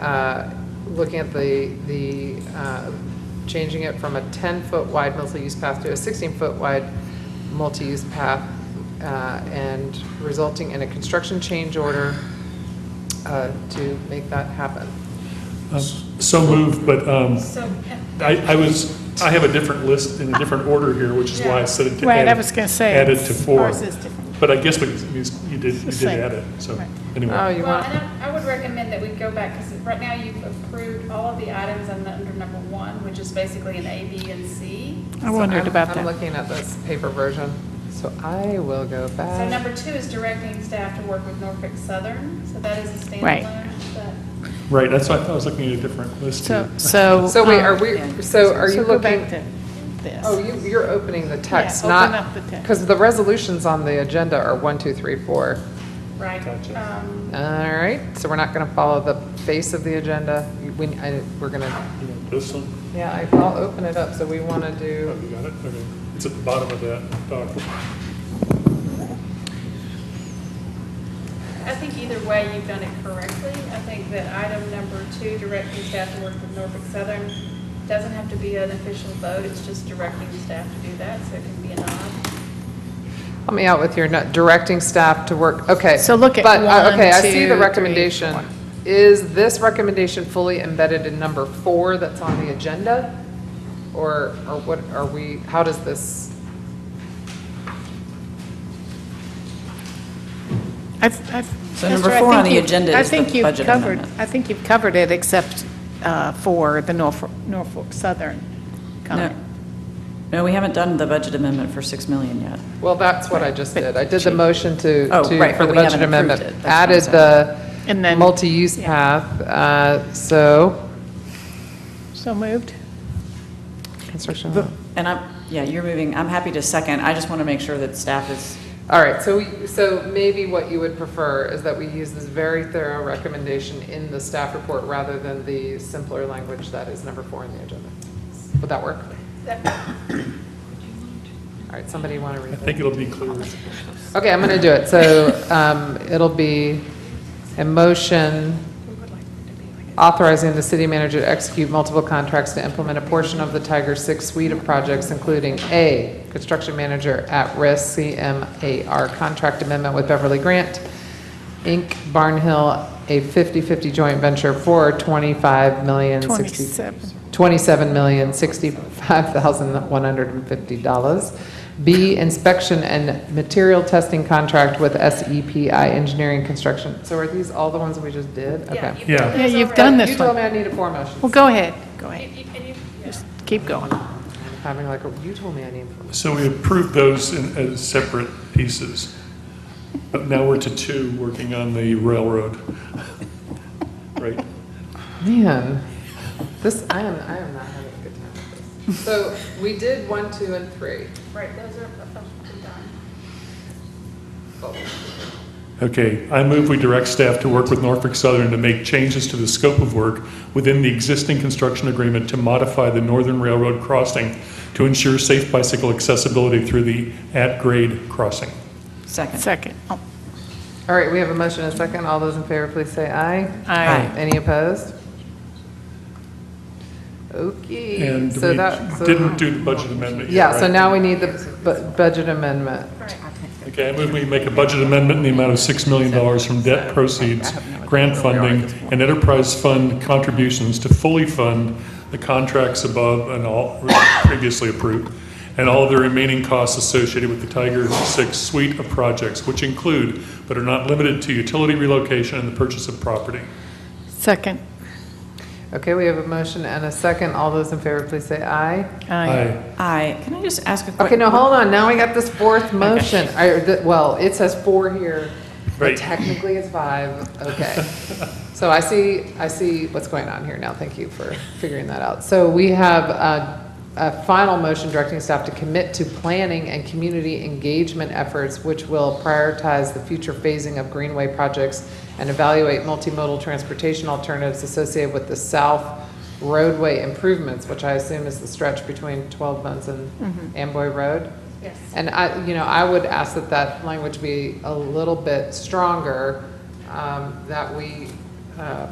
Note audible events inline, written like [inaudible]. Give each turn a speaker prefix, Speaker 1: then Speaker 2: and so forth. Speaker 1: uh, looking at the, the, uh, changing it from a 10-foot wide multi-use path to a 16-foot wide multi-use path, uh, and resulting in a construction change order uh, to make that happen.
Speaker 2: Um, So moved, but um,
Speaker 3: So, uh,
Speaker 2: I I was, I have a different list in a different order here, which is why I said it to
Speaker 4: Right, I
Speaker 2: add-
Speaker 4: was going to say.
Speaker 2: Added to four.
Speaker 4: Ours is different.
Speaker 2: But I guess we- you you did, you did
Speaker 4: Same.
Speaker 2: add it, so,
Speaker 4: Right.
Speaker 1: Oh,
Speaker 2: anyway.
Speaker 1: you
Speaker 3: well,
Speaker 1: want,
Speaker 3: and I I would recommend that we go back, because right now you've approved all of the items on the- under number one, which is basically an A, B, and C.
Speaker 4: I wondered
Speaker 1: I'm-
Speaker 4: about
Speaker 1: I'm
Speaker 4: that.
Speaker 1: looking at this paper version, so I will go back.
Speaker 3: So number two is directing staff to work with Norfolk Southern, so that is a
Speaker 4: Right.
Speaker 3: standalone. but-
Speaker 2: Right, that's why I thought I was looking at a different list
Speaker 4: So,
Speaker 2: here.
Speaker 4: so.
Speaker 1: So wait, are
Speaker 4: um,
Speaker 1: we, so are you
Speaker 4: So go back
Speaker 1: looking?
Speaker 4: to this.
Speaker 1: Oh, you, you're opening the text,
Speaker 4: Yeah,
Speaker 1: not.
Speaker 4: open up the text.
Speaker 1: Because the resolutions on the agenda are one, two, three, four.
Speaker 3: Right.
Speaker 2: Gotcha.
Speaker 3: Um,
Speaker 1: All right, so we're not going to follow the face of the agenda. We, I, we're going to,
Speaker 2: [laughs] You want This one?
Speaker 1: yeah, I- I'll open it up, so we want to
Speaker 2: Oh,
Speaker 1: do,
Speaker 2: you got it? Okay. It's at the bottom of that document.
Speaker 3: I think either way, you've done it correctly. I think that item number two, directing staff to work with Norfolk Southern, doesn't have to be an official vote, it's just directing staff to do that, so it can be an odd.
Speaker 1: help me out with your nut- directing staff to work, okay.
Speaker 4: So look at
Speaker 1: But, uh, okay, I
Speaker 4: one,
Speaker 1: see
Speaker 4: two,
Speaker 1: the
Speaker 4: three,
Speaker 1: recommendation.
Speaker 4: four.
Speaker 1: Is this recommendation fully embedded in number four that's on the agenda? Or, or what, are we, how does this,
Speaker 4: I th- I th-
Speaker 5: So
Speaker 4: Esther,
Speaker 5: number
Speaker 4: I
Speaker 5: four
Speaker 4: think
Speaker 5: on the
Speaker 4: you've-
Speaker 5: agenda
Speaker 4: I
Speaker 5: is the
Speaker 4: think you've
Speaker 5: budget
Speaker 4: covered-
Speaker 5: amendment.
Speaker 4: I think you've covered it except uh, for the Norfolk, Norfolk Southern
Speaker 5: No,
Speaker 4: comment.
Speaker 5: no, we haven't done the budget amendment for 6 million yet.
Speaker 1: well, that's what I just did. I did the motion to,
Speaker 5: Oh,
Speaker 1: to,
Speaker 5: right,
Speaker 1: for
Speaker 5: but
Speaker 1: the
Speaker 5: we
Speaker 1: budget
Speaker 5: haven't approved
Speaker 1: amendment.
Speaker 5: it. That's what I'm
Speaker 1: Added
Speaker 5: saying.
Speaker 4: And
Speaker 1: the
Speaker 4: then-
Speaker 1: multi-use path, uh, so,
Speaker 4: So moved?
Speaker 1: construction.
Speaker 5: And I'm, yeah, you're moving, I'm happy to second, I just want to make sure that staff is,
Speaker 1: All right, so, we- so maybe what you would prefer is that we use this very thorough recommendation in the staff report rather than the simpler language that is number four on the agenda. Would that work? All right, somebody want to
Speaker 2: I
Speaker 1: read
Speaker 2: think
Speaker 1: it?
Speaker 2: it'll be clear.
Speaker 1: Okay, I'm going to do it. So um, it'll be a motion authorizing the city manager to execute multiple contracts to implement a portion of the Tiger Six suite of projects, including A, construction manager at risk CMAR contract amendment with Beverly Grant, Inc., Barnhill, a 50/50 joint venture for 25 million.
Speaker 4: 27.
Speaker 1: $27,065,150. B, inspection and material testing contract with SEPI Engineering Construction. So are these all the ones that we just did?
Speaker 3: Yeah,
Speaker 1: Okay.
Speaker 3: you've
Speaker 2: Yeah.
Speaker 3: done
Speaker 4: Yeah,
Speaker 3: this
Speaker 4: you've
Speaker 3: already.
Speaker 4: done this
Speaker 1: You told me
Speaker 4: one.
Speaker 1: I needed four motions.
Speaker 4: Well, go ahead, go
Speaker 3: You-
Speaker 4: ahead.
Speaker 3: you- and you- yeah.
Speaker 4: Just keep going.
Speaker 1: I'm Having like, a- you told me I needed four.
Speaker 2: So we approved those in, as separate pieces. But now we're to two, working on the railroad. [laughs] Right?
Speaker 1: Man, this, I am, I am not having a good time with this. So we did one, two, and three.
Speaker 3: Right, those are officially done.
Speaker 1: Oh,
Speaker 2: Okay, I move we direct staff to work with Norfolk Southern to make changes to the scope of work within the existing construction agreement to modify the Northern Railroad crossing to ensure safe bicycle accessibility through the at-grade crossing.
Speaker 5: second.
Speaker 4: Second. Oh,
Speaker 1: All right, we have a motion and a second. All those in favor, please say aye.
Speaker 4: Aye.
Speaker 1: Any opposed? Okay.
Speaker 2: And
Speaker 1: So that,
Speaker 2: we
Speaker 1: so-
Speaker 2: didn't do the budget amendment yet,
Speaker 1: Yeah, so
Speaker 2: right?
Speaker 1: now we need the bu- budget amendment.
Speaker 2: Okay, I move we make a budget amendment in the amount of $6 million from debt proceeds, grant funding, and enterprise fund contributions to fully fund the contracts above and all previously approved, and all of the remaining costs associated with the Tiger Six suite of projects, which include, but are not limited to, utility relocation and the purchase of property.
Speaker 4: Second.
Speaker 1: Okay, we have a motion and a second. All those in favor, please say aye.
Speaker 4: Aye.
Speaker 5: I, can I just ask a quick?
Speaker 1: Okay, now hold on, now we got this fourth motion, I- the- well, it says four here, but
Speaker 2: Right.
Speaker 1: technically it's five, okay.
Speaker 2: [laughs]
Speaker 1: So I see, I see what's going on here now, thank you for figuring that out. So we have a, a final motion directing staff to commit to planning and community engagement efforts, which will prioritize the future phasing of greenway projects and evaluate multimodal transportation alternatives associated with the south roadway improvements, which I assume is the stretch between 12 Buns and Amboy Road.
Speaker 3: Yes.
Speaker 1: And I, you know, I would ask that that language be a little bit stronger, um, that we um,